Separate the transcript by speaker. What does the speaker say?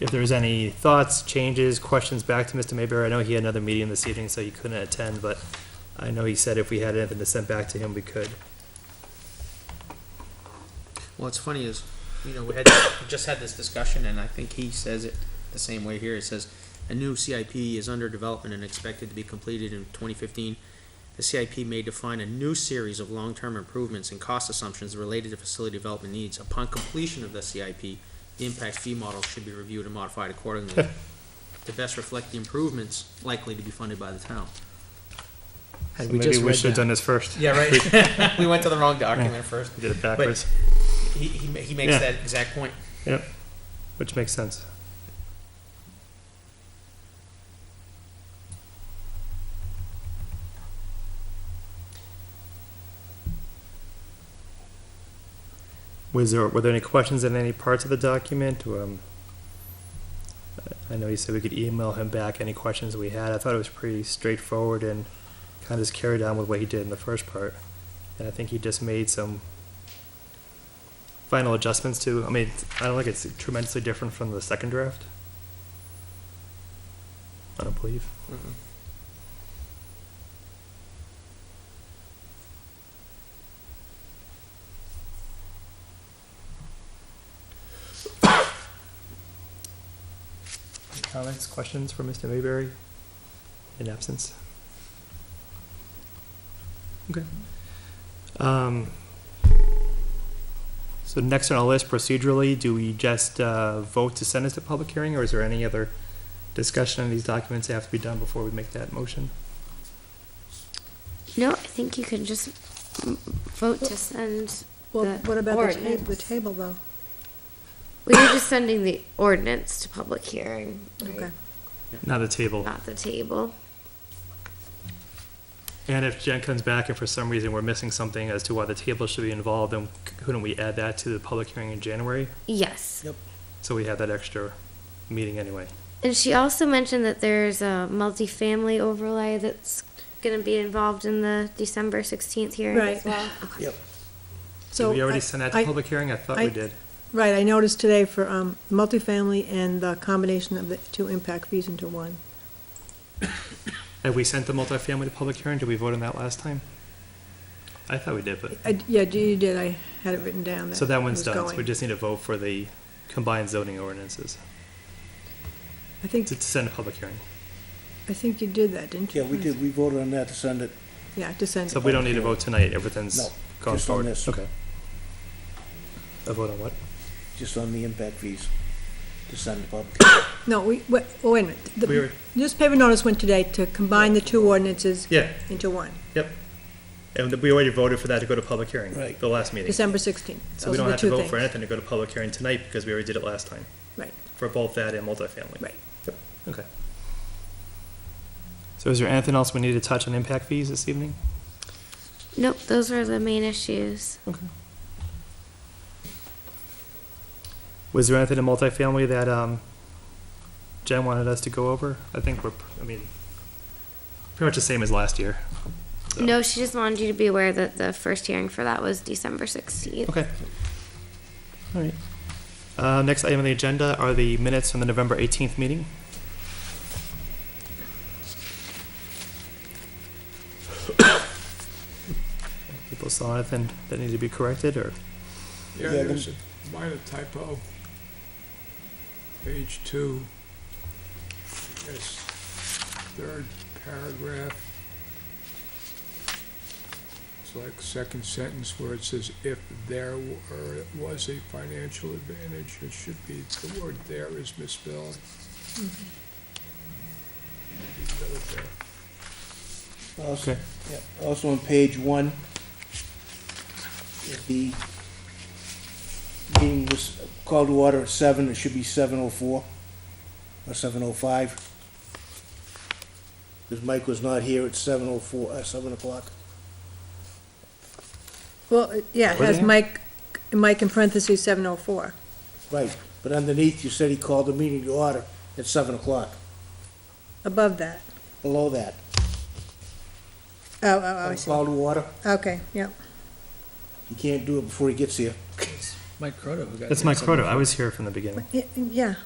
Speaker 1: if there's any thoughts, changes, questions back to Mr. Mayberry. I know he had another meeting this evening, so he couldn't attend, but I know he said if we had anything to send back to him, we could.
Speaker 2: What's funny is, you know, we had, we just had this discussion, and I think he says it the same way here. It says, a new CIP is under development and expected to be completed in twenty fifteen. The CIP may define a new series of long-term improvements and cost assumptions related to facility development needs. Upon completion of the CIP, the impact fee model should be reviewed and modified accordingly to best reflect the improvements likely to be funded by the town. Had
Speaker 1: So
Speaker 2: we
Speaker 1: maybe
Speaker 2: just
Speaker 1: we
Speaker 2: read
Speaker 1: should have
Speaker 2: that-
Speaker 1: done this first.
Speaker 2: Yeah, right. We went to the wrong document first.
Speaker 1: We Did it backwards,
Speaker 2: He, he, ma- he makes
Speaker 1: Yeah.
Speaker 2: that exact point.
Speaker 1: which makes sense. Was there, were there any questions in any parts of the document, or, um, I know you said we could email him back any questions we had, I thought it was pretty straightforward and kind of just carried on with what he did in the first part, and I think he just made some final adjustments to, I mean, it's- I don't think it's tremendously different from the second draft. I don't believe. Any Comments, questions for Mr. Mayberry in absence? Okay. Um, so next on our list procedurally, do we just uh, vote to send this to public hearing, or is there any other discussion on these documents that have to be done before we make that motion?
Speaker 3: No, I think you can just mm, vote to send,
Speaker 4: Well,
Speaker 3: the
Speaker 4: what about the table, the
Speaker 3: ordinance.
Speaker 4: table though?
Speaker 3: we were just sending the ordinance to public hearing, right?
Speaker 4: Okay.
Speaker 1: Not the table.
Speaker 3: not the table.
Speaker 1: And if Jen comes back and for some reason we're missing something as to why the table should be involved, then c- couldn't we add that to the public hearing in January?
Speaker 3: Yes.
Speaker 1: So we have that extra meeting anyway.
Speaker 3: And she also mentioned that there's a multifamily overlay that's gonna be involved in the December sixteenth hearing as
Speaker 4: Right.
Speaker 3: well.
Speaker 1: Did
Speaker 4: So
Speaker 1: we
Speaker 4: I-
Speaker 1: already send that to
Speaker 4: I-
Speaker 1: public hearing? I thought
Speaker 4: I-
Speaker 1: we did.
Speaker 4: Right, I noticed today for um, multifamily and the combination of the two impact fees into one.
Speaker 1: Have we sent the multifamily to public hearing? Did we vote on that last time? I thought we did, but,
Speaker 4: I- Yeah, you did, I had it written down that.
Speaker 1: so that one's
Speaker 4: it
Speaker 1: done.
Speaker 4: was
Speaker 1: So
Speaker 4: going.
Speaker 1: we just need to vote for the combined zoning ordinances.
Speaker 4: I think,
Speaker 1: To to send a public hearing.
Speaker 4: I think you did that, didn't you?
Speaker 5: Yeah, we did, we voted on that to send it,
Speaker 4: Yeah, to send
Speaker 1: So
Speaker 4: it.
Speaker 1: we don't need to vote tonight, everything's
Speaker 5: No,
Speaker 1: gone
Speaker 5: just on
Speaker 1: forward.
Speaker 5: this.
Speaker 1: Okay. A vote on what?
Speaker 5: just on the impact fees, to send to public.
Speaker 4: No, we, wait, oh, wait a minute.
Speaker 1: We were-
Speaker 4: The newspaper notice went today to combine the two ordinances
Speaker 1: Yeah,
Speaker 4: into one,
Speaker 1: and we already voted for that to go to public hearing,
Speaker 5: Right.
Speaker 1: the last meeting.
Speaker 4: December 16th.
Speaker 1: So we
Speaker 4: Those are
Speaker 1: don't
Speaker 4: the
Speaker 1: have to
Speaker 4: two
Speaker 1: vote for
Speaker 4: things.
Speaker 1: anything to go to public hearing tonight, because we already did it last time.
Speaker 4: Right.
Speaker 1: For both that and multifamily.
Speaker 4: Right.
Speaker 1: Yep, okay. So is there anything else we need to touch on impact fees this evening?
Speaker 3: Nope, those were the main issues.
Speaker 1: Okay. Was there anything in multifamily that, um, Jen wanted us to go over? I think we're, pr- I mean, pretty much the same as last year. So-
Speaker 3: No, she just wanted you to be aware that the first hearing for that was December sixteenth.
Speaker 1: Okay. All right. Uh, next item on the agenda are the minutes from the November eighteenth meeting. People saw anything that needed to be corrected, or,
Speaker 6: Yeah,
Speaker 5: Yeah,
Speaker 6: there's a minor typo. Page two. Yes, third paragraph. It's like second sentence where it says, if there were, was a financial advantage, it should be, the word there is misspelled. Leave that up there.
Speaker 5: Also-
Speaker 1: Okay.
Speaker 5: yep, Also on page one, if the meeting was called to order at seven, it should be seven oh four or seven oh five. Because Mike was not here at seven oh four, uh, seven o'clock.
Speaker 4: Well, uh, yeah, it
Speaker 1: Were
Speaker 4: has
Speaker 1: they?
Speaker 4: Mike, Mike in parentheses 704.
Speaker 5: Right, but underneath, you said he called the meeting to order at seven o'clock,
Speaker 4: Above that.
Speaker 5: below that.
Speaker 4: Oh, oh, oh, I see.
Speaker 5: Call to order,
Speaker 4: Okay, yeah.
Speaker 5: you can't do it before he gets here.
Speaker 7: Mike Croto who got.
Speaker 1: that's
Speaker 7: there
Speaker 1: my
Speaker 7: at seven
Speaker 1: quota, I was here from the beginning.
Speaker 4: Yeah,